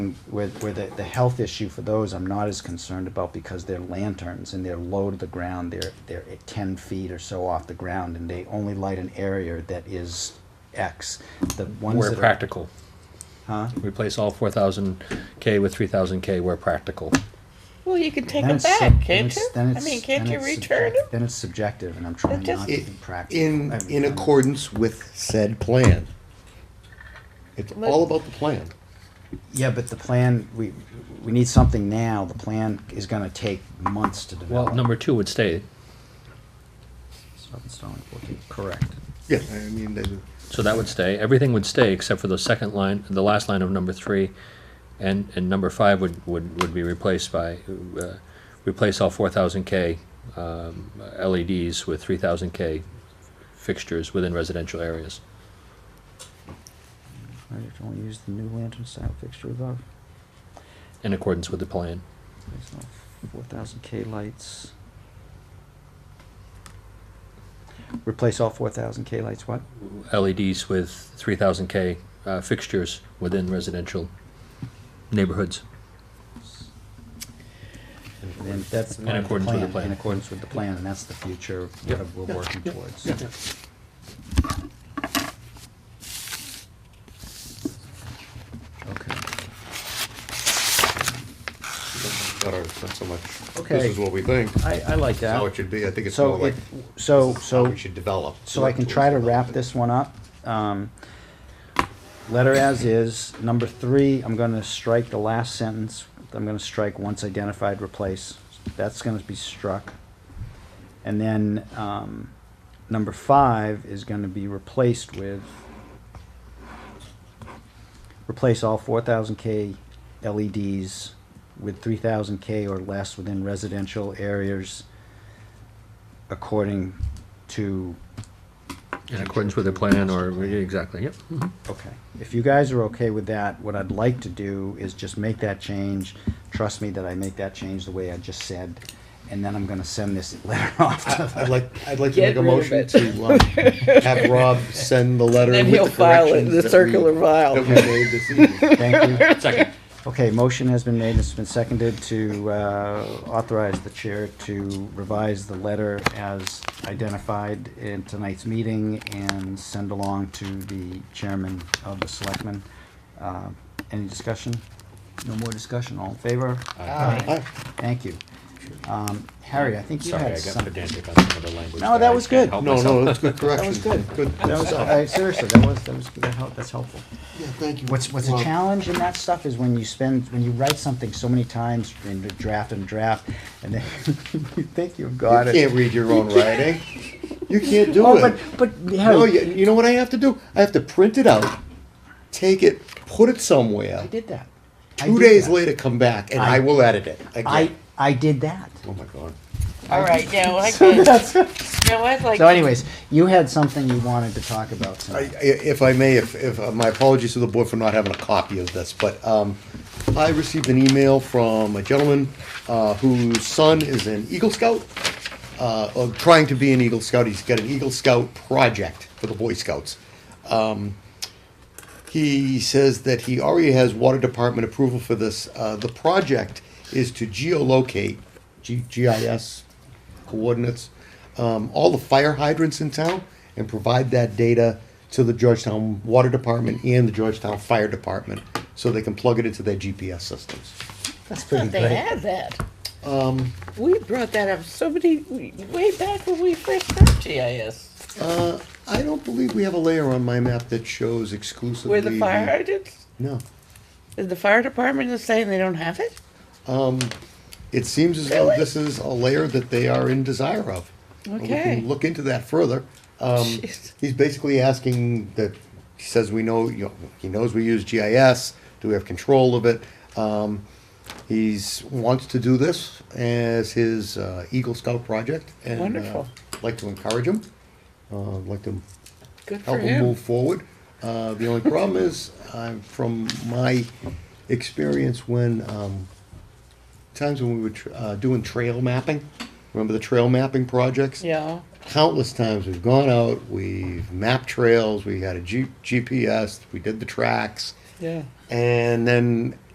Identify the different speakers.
Speaker 1: I'm, where, where the, the health issue for those, I'm not as concerned about because they're lanterns and they're low to the ground, they're, they're at ten feet or so off the ground, and they only light an area that is X. The ones
Speaker 2: Where
Speaker 1: that are-
Speaker 2: practical. Replace all four thousand K with three thousand K where practical.
Speaker 3: Well, you can take
Speaker 1: then
Speaker 3: them
Speaker 1: it's sub-
Speaker 3: back,
Speaker 1: then
Speaker 3: can't
Speaker 1: it's-
Speaker 3: you?
Speaker 1: then
Speaker 3: I
Speaker 1: it's-
Speaker 3: mean, can't
Speaker 1: then
Speaker 3: you
Speaker 1: it's
Speaker 3: return
Speaker 1: subject-
Speaker 3: them?
Speaker 1: Then it's subjective, and I'm trying
Speaker 3: just-
Speaker 1: not to
Speaker 3: It-
Speaker 1: be practical.
Speaker 4: in,
Speaker 1: every
Speaker 4: in
Speaker 1: time.
Speaker 4: accordance with said plan. It's all about the plan.
Speaker 1: Yeah, but the plan, we, we need something now, the plan is gonna take months to develop.
Speaker 2: Well, number two would stay,
Speaker 1: Stop installing 14. correct.
Speaker 4: Yeah, I mean, that-
Speaker 2: so that would stay, everything would stay except for the second line, the last line of number three. And, and number five would, would, would be replaced by, uh, replace all four thousand K, um, LEDs with three thousand K fixtures within residential areas.
Speaker 1: I just only use the new lantern style fixture above.
Speaker 2: in accordance with the plan.
Speaker 1: There's no four thousand K lights. Replace all four thousand K lights, what?
Speaker 2: LEDs E with 3000K uh, fixtures within residential neighborhoods.
Speaker 1: And that's
Speaker 2: In
Speaker 1: part of
Speaker 2: accordance with the plan.
Speaker 1: In accordance with the plan, and that's the future
Speaker 2: Yep.
Speaker 1: that we're working towards. Okay.
Speaker 4: not our- not so much,
Speaker 1: Okay.
Speaker 4: this is what we think,
Speaker 1: I, I like
Speaker 4: That's how it
Speaker 1: that.
Speaker 4: should be, I think it's more
Speaker 1: So
Speaker 4: like
Speaker 1: it, so,
Speaker 4: how
Speaker 1: so,
Speaker 4: we should develop.
Speaker 1: so I can try to wrap this one up. Um, Letter as is, number three, I'm gonna strike the last sentence, I'm gonna strike once identified, replace, that's gonna be struck. And then, um, number five is gonna be replaced with, replace all four thousand K LEDs with three thousand K or less within residential areas according to
Speaker 2: In accordance with the plan or, exactly, yep. mhm.
Speaker 1: Okay, if you guys are okay with that, what I'd like to do is just make that change. Trust me that I make that change the way I just said, and then I'm gonna send this letter off to
Speaker 4: I'd like, I'd like to
Speaker 3: Get
Speaker 4: make a
Speaker 3: rid of
Speaker 4: motion
Speaker 3: it.
Speaker 4: to um, have Rob send the letter
Speaker 3: Then
Speaker 4: with
Speaker 3: he'll
Speaker 4: the
Speaker 3: file it in
Speaker 4: corrections
Speaker 3: the
Speaker 4: that we-
Speaker 3: circular file.
Speaker 4: That we made this evening.
Speaker 1: Thank you.
Speaker 2: Second.
Speaker 1: Okay, motion has been made, it's been seconded to uh, authorize the chair to revise the letter as identified in tonight's meeting and send along to the chairman of the selectmen. Uh, Any discussion? No more discussion, all in favor?
Speaker 4: Aye.
Speaker 1: Thank you. Um, Harry, I think you
Speaker 2: Sorry,
Speaker 1: had
Speaker 2: I got
Speaker 1: something.
Speaker 2: pedantic on some of the language.
Speaker 1: No,
Speaker 2: there.
Speaker 1: that
Speaker 2: I
Speaker 1: was
Speaker 2: can't
Speaker 1: good.
Speaker 2: help
Speaker 4: No,
Speaker 2: myself.
Speaker 4: no, that's good
Speaker 1: That was
Speaker 4: correction.
Speaker 1: good.
Speaker 4: Good.
Speaker 1: That was, I, seriously, that was, that was, that helped, that's helpful.
Speaker 4: Yeah, thank you.
Speaker 1: What's, what's a
Speaker 4: Rob.
Speaker 1: challenge in that stuff is when you spend, when you write something so many times in the draft and draft, and then you think you've got
Speaker 4: You
Speaker 1: it.
Speaker 4: can't read your own writing. You can't do
Speaker 1: Oh,
Speaker 4: it.
Speaker 1: but, but,
Speaker 4: No,
Speaker 1: Harry,
Speaker 4: you, you know what I have to do? I have to print it out, take it, put it somewhere.
Speaker 1: I did that. I
Speaker 4: Two
Speaker 1: did
Speaker 4: days
Speaker 1: that.
Speaker 4: later, come back and I,
Speaker 1: I-
Speaker 4: will edit it again.
Speaker 1: I, I did that.
Speaker 4: oh my god.
Speaker 3: All right, now I can. Now I'd like.
Speaker 1: So anyways, you had something you wanted to talk about
Speaker 4: I, I,
Speaker 1: tonight.
Speaker 4: if I may, if, if uh, my apologies to the board for not having a copy of this, but um, I received an email from a gentleman uh, whose son is an Eagle Scout, uh, or trying to be an Eagle Scout. He's got an Eagle Scout project for the Boy Scouts. He says that he already has water department approval for this. Uh, the project is to geolocate, G- GIS coordinates, um, all the fire hydrants in town and provide that data to the Georgetown Water Department and the Georgetown Fire Department so they can plug it into their GPS systems.
Speaker 1: That's pretty
Speaker 3: Thought they
Speaker 1: great.
Speaker 3: had that.
Speaker 4: Um,
Speaker 3: We brought that up so many, way back when we first got GIS.
Speaker 4: I don't believe we have a layer on my map that shows exclusively.
Speaker 3: Where the fire hydrants,
Speaker 4: No.
Speaker 3: is the fire department is saying they don't have it?
Speaker 4: It seems as though this is a layer that they are in desire of. We
Speaker 3: Okay.
Speaker 4: can look into that further. Um,
Speaker 3: Jeez.
Speaker 4: he's basically asking that, he says we know, you know, he knows we use GIS, do we have control of it? Um, he's, wants to do this as his uh, Eagle Scout project. and, uh,
Speaker 3: Wonderful.
Speaker 4: Like to encourage him, uh, like to
Speaker 3: Good for
Speaker 4: help him
Speaker 3: him.
Speaker 4: move forward. Uh, the only problem is, uh, from my experience when, um, times when we were, tr- uh, doing trail mapping, remember the trail mapping projects?
Speaker 3: Yeah,
Speaker 4: Countless times we've gone out, we've mapped trails, we had a G- GPS, we did the tracks,
Speaker 3: yeah.
Speaker 4: and then